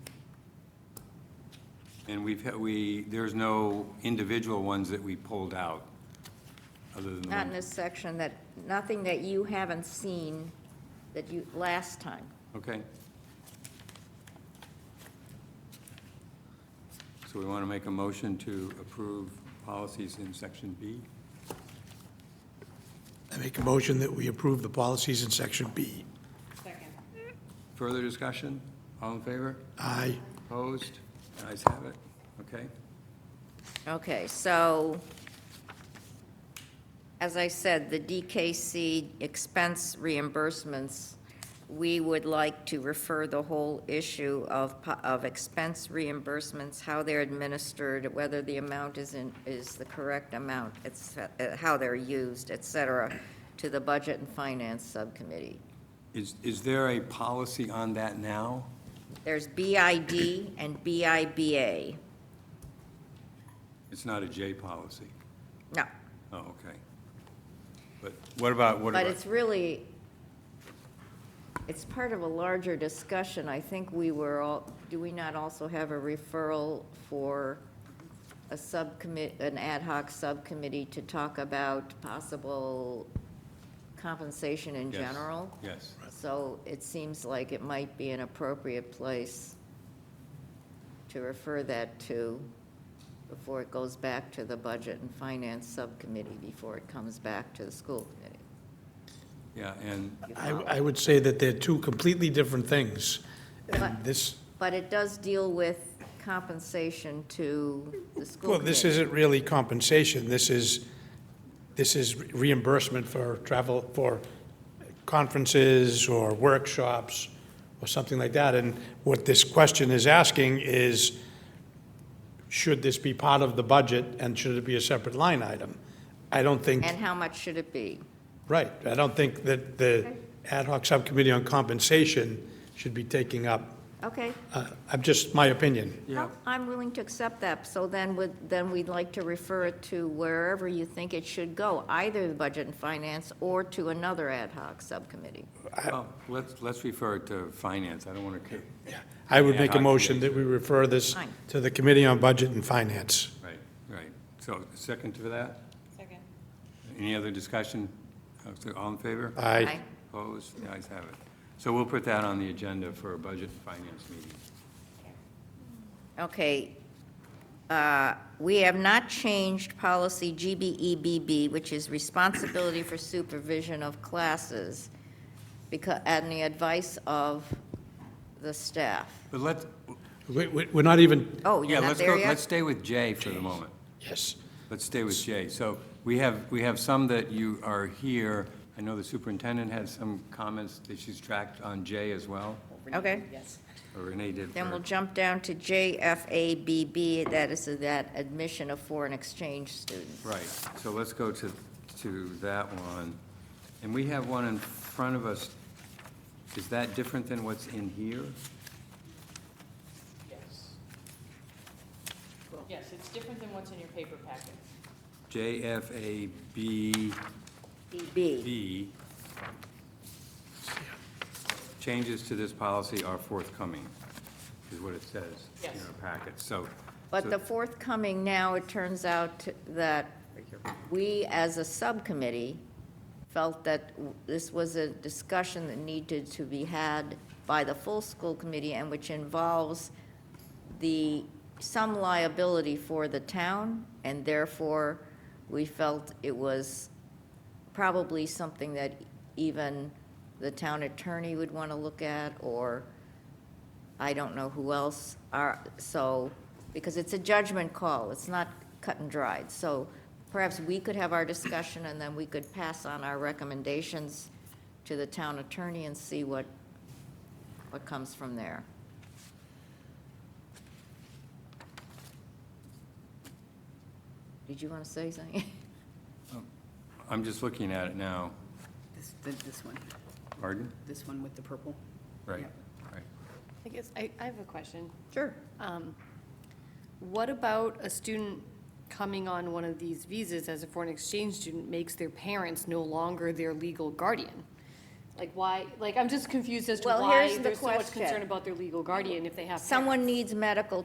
And we've, had- we, there's no individual ones that we pulled out, other than the Not in one. this section, that, nothing that you haven't seen that you, last time. Okay. So we want to make a motion to approve policies in section B? I make a motion that we approve the policies in section B. Further discussion? All in favor? Aye. Opposed? Ayes have it. Okay. Okay, so, as I said, the DKC expense reimbursements, we would like to refer the whole issue of, po- of expense reimbursements, how they're administered, whether the amount is in, is the correct amount, et ce- uh, how they're used, et cetera, to the Budget and Finance Subcommittee. Is, is there a policy on that now? There's BID and BIBA. It's not a J policy. No, Oh, okay. But what about, what but about? it's really, it's part of a larger discussion. I think we were all, do we not also have a referral for a subcommit, an ad hoc subcommittee to talk about possible compensation in Yes, general? Yes. So it seems like it might be an appropriate place to refer that to before it goes back to the Budget and Finance Subcommittee, before it comes back to the School Committee. Yeah, and You I, follow? I would say that they're two completely different things. But- And this, But it does deal with compensation to the School well, this Committee. isn't really compensation. This is, this is reimbursement for travel, for conferences or workshops or something like that. And what this question is asking is, should this be part of the budget and should it be a separate line item? I don't think. And how much should it be? Right, I don't think that the ad hoc subcommittee on compensation should be taking up, Okay. uh, I'm just, my opinion. Yeah. I'm willing to accept that, so then would, then we'd like to refer it to wherever you think it should go, either the Budget and Finance or to another ad hoc subcommittee. Well, let's, let's refer it to finance. I don't want to, I would Ad make a hoc motion that we refer this Fine. to the Committee on Budget and Finance. right, right. So second to that? Second. Any other discussion? Uh, so All in favor? Aye. Opposed? The ayes have it. So we'll put that on the agenda for a budget and finance meeting. Okay. Uh, We have not changed policy GBEBB, which is responsibility for supervision of classes, because, and the advice of the staff. But let's, We- we- We're not even, Oh, yeah, you're not let's go, there let's yet? stay with J for the moment. yes, Let's stay with J. So we have, we have some that you are here. I know the superintendent had some comments that she's tracked on J as well, Okay. Yes. or Renee did. Then for- we'll jump down to JFABB, that is that admission of foreign exchange students. Right, so let's go to, to that one. And we have one in front of us. Is that different than what's in here? Yes. Yes, it's different than what's in your paper packet. JFABB, BB. changes to this policy are forthcoming, is what it says in Yes. our packet, so. But so- the forthcoming now, it turns out that we, as a subcommittee, felt that w- this was a discussion that needed to be had by the full school committee and which involves the, some liability for the town, and therefore, we felt it was probably something that even the town attorney would want to look at, or I don't know who else are, so, because it's a judgment call, it's not cut and dried. So perhaps we could have our discussion, and then we could pass on our recommendations to the town attorney and see what, what comes from there. Did you want to say something? I'm just looking at it now. This, th- this one, Pardon? this one with the purple. Right, Yep. right. I guess, I, I have a question. Sure. Um, What about a student coming on one of these visas as a foreign exchange student makes their parents no longer their legal guardian? Like why, like, I'm just confused as to Well, why here's the there's so much question. concern about their legal guardian if they have parents. Someone needs medical